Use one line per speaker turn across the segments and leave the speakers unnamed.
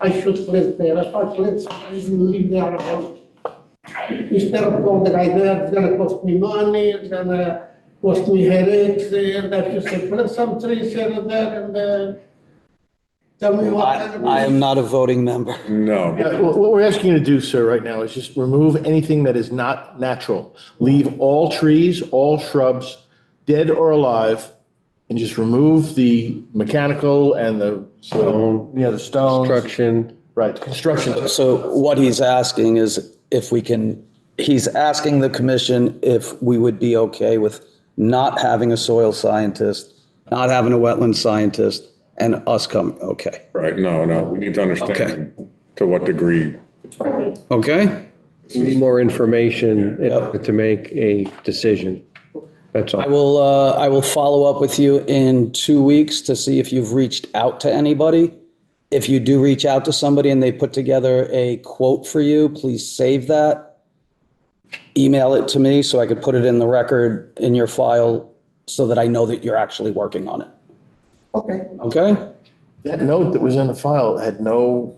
I should live there, I thought, let's leave there about. Instead of all the guy there, it's gonna cost me money, it's gonna cost me headaches, and I should say, plant some trees here and there, and, uh, tell me what.
I I am not a voting member.
No,
Yeah, What what we're asking you to do, sir, right now is just remove anything that is not natural. Leave all trees, all shrubs, dead or alive, and just remove the mechanical and the,
Stone,
yeah, the stones.
construction.
Right, construction.
So what he's asking is if we can, he's asking the commission if we would be okay with not having a soil scientist, not having a wetland scientist, and us coming, okay,
right, no, no, we need to understand to what degree.
okay?
We need more information in order to make a decision. That's
I
all.
will, uh, I will follow up with you in two weeks to see if you've reached out to anybody. If you do reach out to somebody and they put together a quote for you, please save that. Email it to me so I could put it in the record in your file so that I know that you're actually working on it.
Okay.
Okay?
That note that was in the file had no,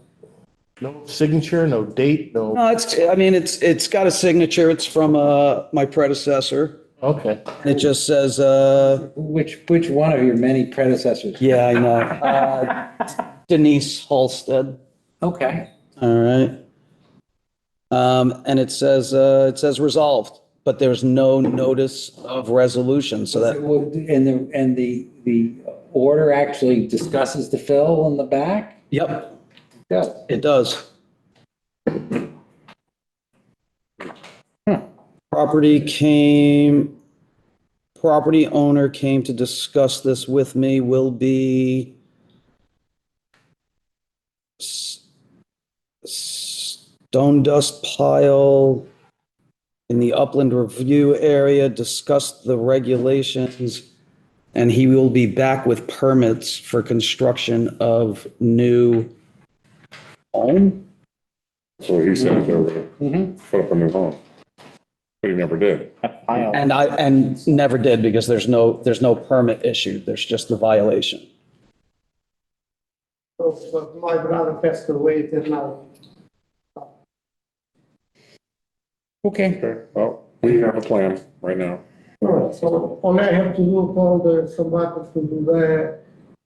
no signature, no date, no,
No, it's, I mean, it's, it's got a signature. It's from, uh, my predecessor.
okay.
It just says, uh,
Which, which one of your many predecessors?
yeah, I know. Uh, Denise Halstead.
Okay.
All right. Um, and it says, uh, it says resolved, but there's no notice of resolution, so that,
And the, and the, the order actually discusses the fill in the back?
yep,
Yes.
it does. Hmm. Property came, property owner came to discuss this with me, will be s- stone dust pile in the upland review area, discussed the regulations, and he will be back with permits for construction of new home?
So he
Mm-hmm.
said they were gonna put up a new home. But he never did.
And I, and never did because there's no, there's no permit issued. There's just the violation.
So, but my brother passed away till now.
Okay.
Okay, well, we have a plan right now.
All right, so all I have to do, call the, somebody to do that,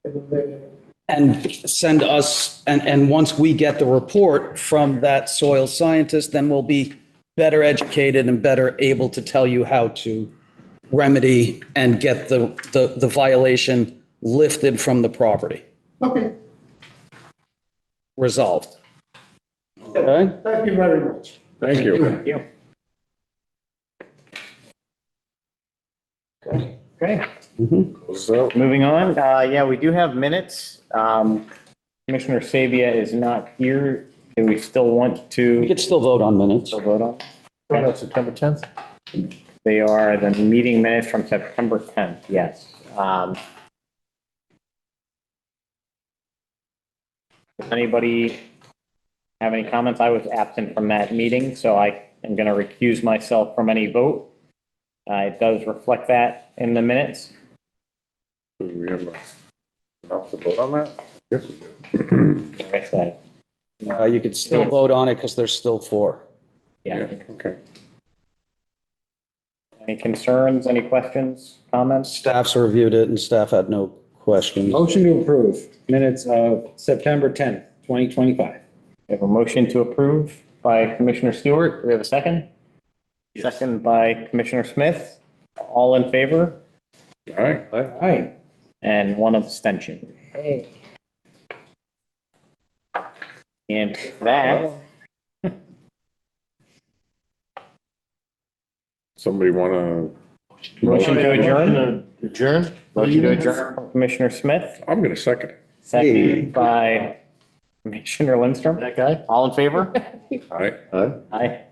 and uh, then.
And send us, and, and once we get the report from that soil scientist, then we'll be better educated and better able to tell you how to remedy and get the, the, the violation lifted from the property,
Okay,
resolved. Okay?
thank you very much.
Thank you.
Okay,
So,
moving on. Uh, yeah, we do have minutes. Um, Commissioner Sabia is not here. Do we still want
We
to
could still vote on minutes.
still vote on?
Right, September 10th?
They are the meeting minutes from September 10th, yes. Um, Does anybody have any comments? I was absent from that meeting, so I am going to recuse myself from any vote. Uh, It does reflect that in the minutes.
do we have enough to vote on that? Yes, we do.
Correct that.
Uh, you could still vote on it because there's still four.
Yeah.
Okay.
Any concerns, any questions, comments?
Staff's reviewed it and staff had no questions.
Motion to approve minutes of September 10th, 2025.
We have a motion to approve by Commissioner Stewart. Do we have a second? Second by Commissioner Smith. All in favor
All right.
All right.
and one abstention. And that,
Somebody wanna?
motion to adjourn,
Adjourn?
motion to adjourn, Commissioner Smith,
I'm gonna second it.
second by Commissioner Lindstrom.
That guy?
All in favor?
All right.
Aye.